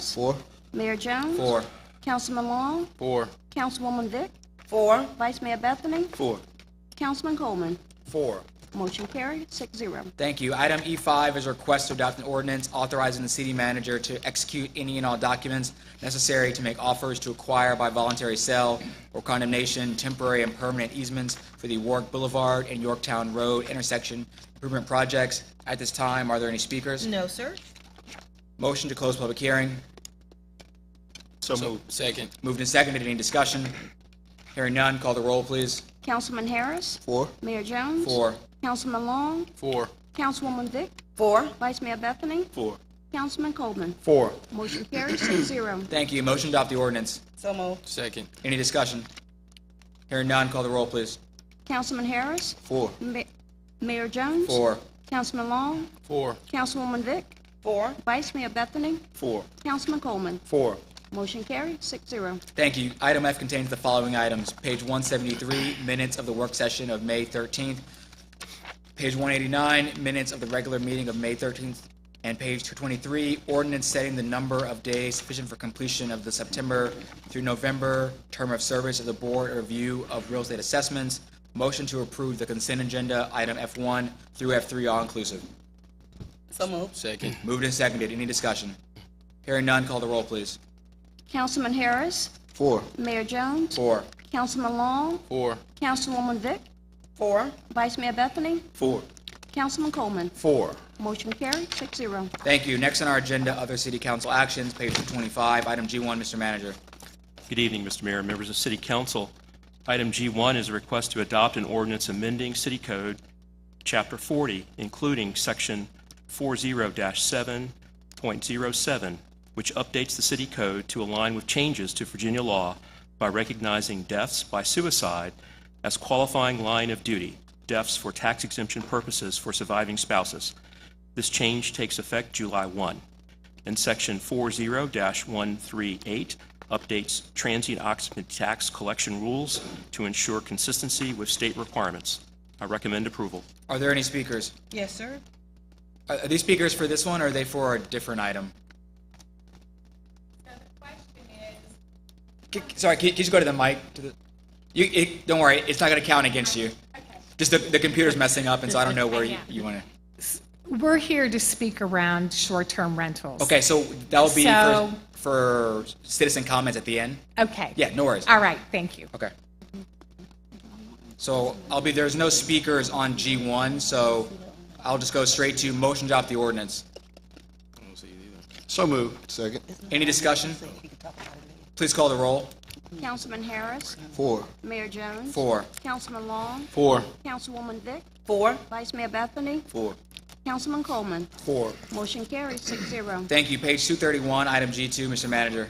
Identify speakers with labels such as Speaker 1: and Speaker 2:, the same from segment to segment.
Speaker 1: Four.
Speaker 2: Mayor Jones.
Speaker 1: Four.
Speaker 2: Councilman Long.
Speaker 1: Four.
Speaker 2: Councilwoman Vick.
Speaker 3: Four.
Speaker 2: Vice Mayor Bethany.
Speaker 1: Four.
Speaker 2: Councilman Coleman.
Speaker 1: Four.
Speaker 2: Motion carried, six zero.
Speaker 4: Thank you. Item E5 is a request to adopt an ordinance authorizing the city manager to execute any and all documents necessary to make offers to acquire by voluntary sale or condemnation temporary and permanent easements for the Warwick Boulevard and Yorktown Road intersection improvement projects. At this time, are there any speakers?
Speaker 3: No, sir.
Speaker 4: Motion to close public hearing.
Speaker 1: So moved.
Speaker 5: Second,
Speaker 4: Moved and seconded. Any discussion? Hearing none, call the roll, please.
Speaker 2: Councilman Harris.
Speaker 1: Four.
Speaker 2: Mayor Jones.
Speaker 4: Four.
Speaker 2: Councilman Long.
Speaker 5: four,
Speaker 2: Councilwoman Vick.
Speaker 3: Four.
Speaker 2: Vice Mayor Bethany.
Speaker 1: Four.
Speaker 2: Councilman Coleman.
Speaker 1: Four.
Speaker 2: Motion carried, six zero.
Speaker 4: Thank you. Motion to adopt the ordinance.
Speaker 3: So moved.
Speaker 5: second,
Speaker 4: Any discussion? Hearing none, call the roll, please.
Speaker 2: Councilman Harris.
Speaker 1: Four.
Speaker 2: Ma- Mayor Jones.
Speaker 4: Four.
Speaker 2: Councilman Long.
Speaker 5: four,
Speaker 2: Councilwoman Vick.
Speaker 3: Four.
Speaker 2: Vice Mayor Bethany.
Speaker 1: Four.
Speaker 2: Councilman Coleman.
Speaker 1: Four.
Speaker 2: Motion carried, six zero.
Speaker 4: Thank you. Item F contains the following items. Page 173, minutes of the work session of May 13th. Page 189, minutes of the regular meeting of May 13th. And page 223, ordinance setting the number of days sufficient for completion of the September through November term of service of the Board of Review of Real Estate Assessments. Motion to approve the consent agenda, item F1 through F3, all inclusive.
Speaker 3: So moved.
Speaker 5: second,
Speaker 4: Moved and seconded. Any discussion? Hearing none, call the roll, please.
Speaker 2: Councilman Harris.
Speaker 1: Four.
Speaker 2: Mayor Jones.
Speaker 4: Four.
Speaker 2: Councilman Long.
Speaker 5: four,
Speaker 2: Councilwoman Vick.
Speaker 3: Four.
Speaker 2: Vice Mayor Bethany.
Speaker 1: Four.
Speaker 2: Councilman Coleman.
Speaker 1: Four.
Speaker 2: Motion carried, six zero.
Speaker 4: Thank you. Next on our agenda, other city council actions, page 225, item G1, Mr. Manager.
Speaker 6: Good evening, Mr. Mayor and members of City Council. Item G1 is a request to adopt an ordinance amending City Code, Chapter 40, including Section 40-7.07, which updates the city code to align with changes to Virginia law by recognizing deaths by suicide as qualifying line of duty, deaths for tax exemption purposes for surviving spouses. This change takes effect July 1 and Section 40-138 updates transient occupant tax collection rules to ensure consistency with state requirements. I recommend approval.
Speaker 4: Are there any speakers?
Speaker 3: Yes, sir.
Speaker 4: Are are these speakers for this one, or are they for a different item? C- c- Sorry, can you can you just go to the mic? to the- You, it, don't worry, it's not gonna count against you. Just the, the computer's messing up, and so I don't know where you, you wanna.
Speaker 7: We're here to speak around short-term rentals.
Speaker 4: Okay, so that'll be for,
Speaker 7: So-
Speaker 4: for citizen comments at the end?
Speaker 7: Okay.
Speaker 4: Yeah, no worries.
Speaker 7: All right, thank you.
Speaker 4: Okay. So I'll be, there's no speakers on G1, so I'll just go straight to motion to adopt the ordinance.
Speaker 1: So moved. Second.
Speaker 4: Any discussion? Please call the roll.
Speaker 2: Councilman Harris.
Speaker 1: Four.
Speaker 2: Mayor Jones.
Speaker 4: Four.
Speaker 2: Councilman Long.
Speaker 5: four,
Speaker 2: Councilwoman Vick.
Speaker 3: Four.
Speaker 2: Vice Mayor Bethany.
Speaker 1: Four.
Speaker 2: Councilman Coleman.
Speaker 1: Four.
Speaker 2: Motion carried, six zero.
Speaker 4: Thank you. Page 231, item G2, Mr. Manager.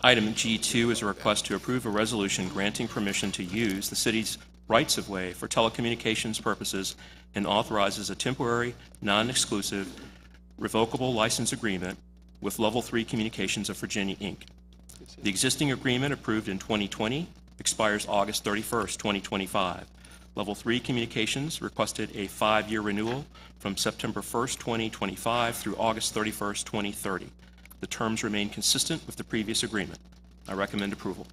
Speaker 6: Item G2 is a request to approve a resolution granting permission to use the city's rights-of-way for telecommunications purposes and authorizes a temporary, non-exclusive, revocable license agreement with Level 3 Communications of Virginia, Inc. The existing agreement approved in 2020 expires August 31st, 2025. Level 3 Communications requested a five-year renewal from September 1st, 2025 through August 31st, 2030. The terms remain consistent with the previous agreement. I recommend approval.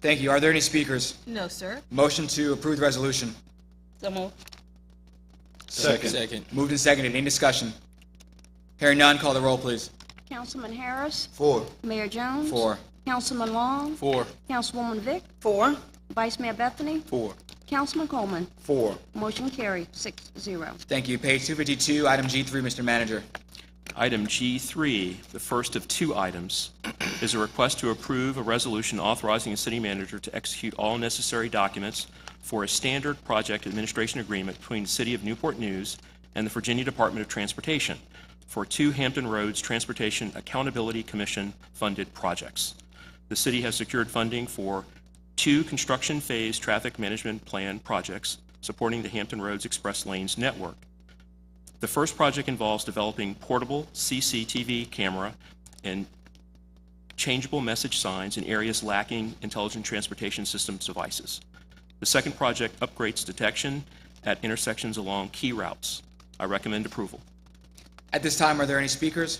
Speaker 4: Thank you. Are there any speakers?
Speaker 3: No, sir.
Speaker 4: Motion to approve the resolution.
Speaker 3: So moved.
Speaker 1: Second.
Speaker 5: second,
Speaker 4: Moved and seconded. Any discussion? Hearing none, call the roll, please.
Speaker 2: Councilman Harris.
Speaker 1: Four.
Speaker 2: Mayor Jones.
Speaker 4: Four.
Speaker 2: Councilman Long.
Speaker 5: four,
Speaker 2: Councilwoman Vick.
Speaker 3: Four.
Speaker 2: Vice Mayor Bethany.
Speaker 1: Four.
Speaker 2: Councilman Coleman.
Speaker 1: Four.
Speaker 2: Motion carried, six zero.
Speaker 4: Thank you. Page 252, item G3, Mr. Manager.
Speaker 6: Item G3, the first of two items, is a request to approve a resolution authorizing the city manager to execute all necessary documents for a standard project administration agreement between the City of Newport News and the Virginia Department of Transportation for two Hampton Roads Transportation Accountability Commission-funded projects. The city has secured funding for two construction phase traffic management plan projects supporting the Hampton Roads Express Lanes network. The first project involves developing portable CCTV camera and changeable message signs in areas lacking intelligent transportation systems devices. The second project upgrades detection at intersections along key routes. I recommend approval.
Speaker 4: At this time, are there any speakers?